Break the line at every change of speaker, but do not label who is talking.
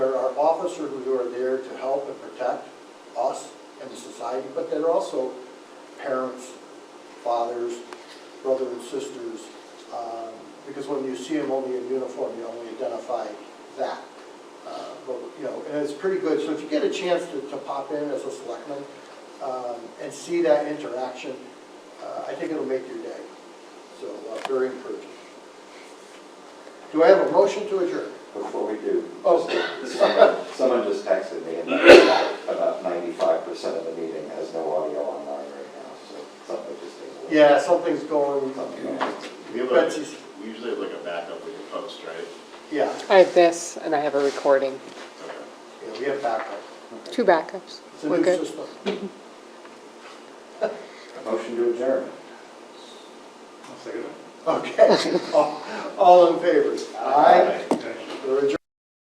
officer who are there to help and protect us and the society, but they're also parents, fathers, brother and sisters, um, because when you see them only in uniform, you only identify that. Uh, But, you know, and it's pretty good, so if you get a chance to, to pop in as a selectman um, and see that interaction, uh, I think it'll make your day. So, uh, very encouraging. Do I have a motion to adjourn?
Before we do,
Oh.
just- someone someone just texted me and about ninety-five percent of the meeting has no audio online right now, so something just. needs to-
Yeah, something's going,
Something else.
We have like,
Betsy's,
we usually have like a backup we can post, right?
yeah,
I have this, and I have a recording,
Okay.
yeah, we have backup.
two backups.
It's a
We're
new
good.
system.
Motion to adjourn.
Okay, all all in favor? Aye. We're adjourned.